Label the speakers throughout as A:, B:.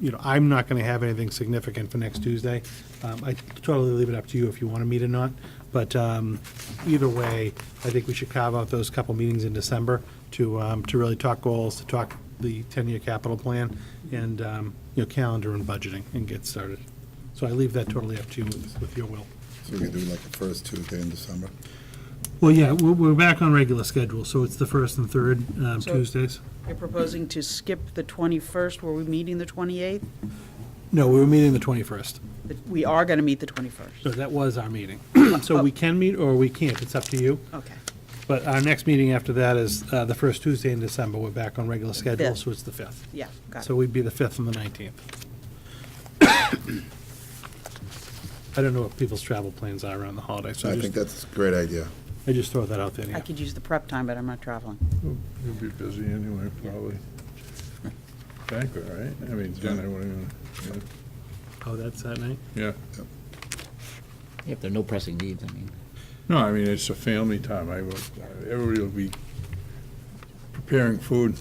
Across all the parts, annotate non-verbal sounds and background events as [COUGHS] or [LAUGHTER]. A: you know, I'm not going to have anything significant for next Tuesday. Um, I totally leave it up to you if you want to meet or not, but um, either way, I think we should carve out those couple meetings in December to, um, to really talk goals, to talk the 10-year capital plan and, um, you know, calendar and budgeting and get started. So I leave that totally up to you with with your will.
B: So we can do like the first Tuesday in December.
A: Well, yeah, we're, we're back on regular schedule, so it's the first and third um,
C: So-
A: Tuesdays.
C: You're proposing to skip the 21st, were we meeting the 28th?
A: No, we were meeting the 21st.
C: But We are going to meet the 21st.
A: So that was our meeting. So we can meet or we can't, it's up to you.
C: Okay,
A: But our next meeting after that is uh, the first Tuesday in December. We're back on regular schedule,
C: Fifth.
A: so it's the 5th.
C: yeah, got
A: So
C: it.
A: we'd be the 5th and the 19th. [COUGHS] I don't know what people's travel plans are around the holidays, so I
B: I think
A: just,
B: that's a great idea.
A: I just throw that out there.
C: I
A: yeah.
C: could use the prep time, but I'm not traveling.
D: You'll be busy anyway, probably. Banquet, right? I mean, dinner, what do you want?
A: Oh, that's that night?
D: Yeah.
E: If there are no pressing needs, I mean.
D: No, I mean, it's a family time. I will, everybody will be preparing food.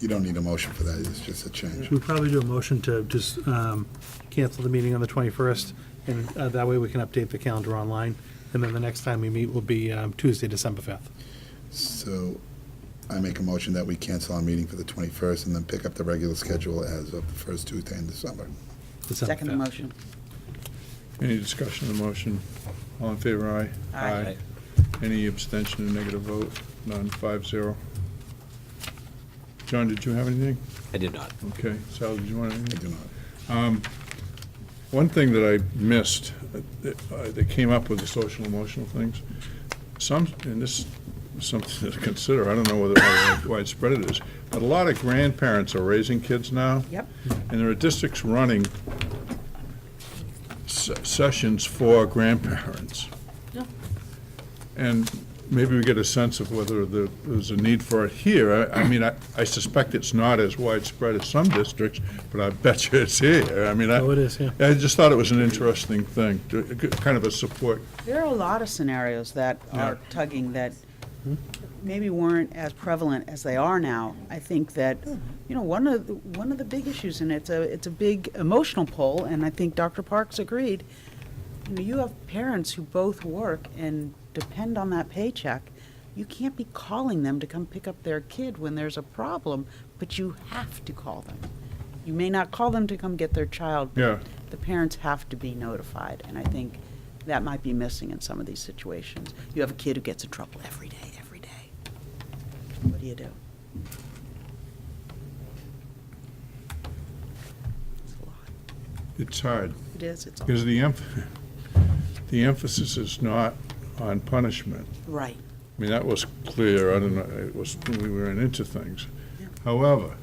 B: You don't need a motion for that, it's just a change.
A: Should we probably do a motion to just um, cancel the meeting on the 21st? And uh, that way we can update the calendar online. And then the next time we meet will be um, Tuesday, December 5th.
B: So I make a motion that we cancel our meeting for the 21st and then pick up the regular schedule as of the first Tuesday in December.
A: December
C: Second the
A: 5th.
C: motion.
D: Any discussion of the motion? All in favor, aye?
C: Aye.
D: Any abstention or negative vote? None, five zero. John, did you have anything?
E: I did not.
D: Okay, Sal, did you want anything?
B: I do not.
D: One thing that I missed, uh, that uh, that came up with the social emotional things, some, and this is something [LAUGHS] to consider, I don't know whether how widespread it is, but a lot of grandparents are raising kids now.
C: Yep.
D: And there are districts running se- sessions for grandparents.
C: Yeah.
D: And maybe we get a sense of whether there- there's a need for it here. I I mean, I I suspect it's not as widespread as some districts, but I bet you it's here. I mean, I...
A: Oh, it is, yeah.
D: I just thought it was an interesting thing, to- kind of a support.
C: There are a lot of scenarios that are
D: Yeah.
C: tugging that maybe weren't as prevalent as they are now. I think that, you know, one of, the- one of the big issues, and it's a, it's a big emotional pull, and I think Dr. Parks agreed, you know, you have parents who both work and depend on that paycheck. You can't be calling them to come pick up their kid when there's a problem, but you have to call them. You may not call them to come get their child,
D: Yeah.
C: but the parents have to be notified, and I think that might be missing in some of these situations. You have a kid who gets in trouble every day, every day. What do you do? It's a lot.
D: It's hard,
C: It is, it's all,
D: because the emph, [LAUGHS] the emphasis is not on punishment.
C: right,
D: I mean, that was clear, I don't know, it was, we ran into things.
C: Yeah.
D: However,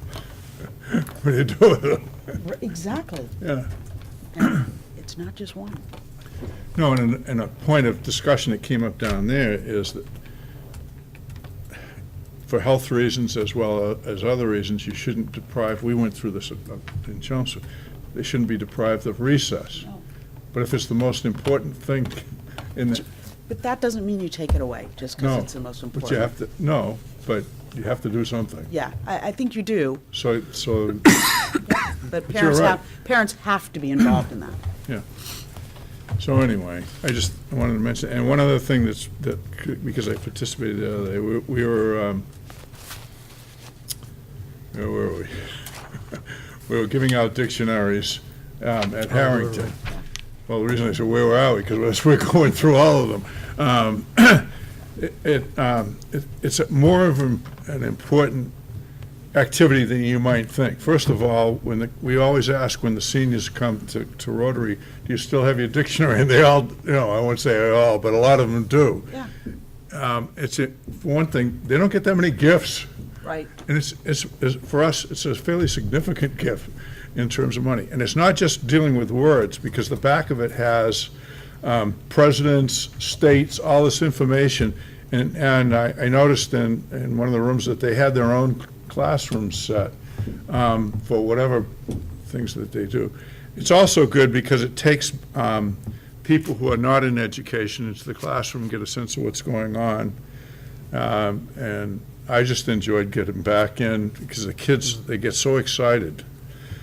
D: [LAUGHS] what do you do with it?
C: R- exactly.
D: Yeah.
C: And It's not just one.
D: No, and, and a point of discussion that came up down there is that for health reasons as well as other reasons, you shouldn't deprive, we went through this up in Chelmsford, they shouldn't be deprived of recess.
C: No.
D: But if it's the most important thing in the,
C: But that doesn't mean you take it away, just
D: no.
C: because it's the most important.
D: But you have to, no, but you have to do something.
C: Yeah, I, I think you do,
D: So, so,
C: but
D: you're
C: parents
D: right.
C: have, parents have to be involved in that.
D: yeah. So anyway, I just wanted to mention, and one other thing that's, that, could- because I participated the other day, we we were, um, where were we? [LAUGHS] We were giving out dictionaries um, at Harrington. Well, the reason I said where were we, because we're [LAUGHS] going through all of them. Um, [CLEARS THROAT] it- It, um, it- it's a- more of an an important activity than you might think. First of all, when the, we always ask when the seniors come to, to Rotary, do you still have your dictionary? And they all, you know, I won't say all, but a lot of them do.
C: Yeah,
D: Um, It's, a- for one thing, they don't get that many gifts.
C: right.
D: And it's, it's, it's, for us, it's a fairly significant gift in terms of money. And it's not just dealing with words, because the back of it has um, presidents, states, all this information. And, and I, I noticed in, in one of the rooms that they had their own classroom set um, for whatever things that they do. It's also good because it takes um, people who are not in education into the classroom, get a sense of what's going on. Um, And I just enjoyed getting back in because the kids, they get so excited.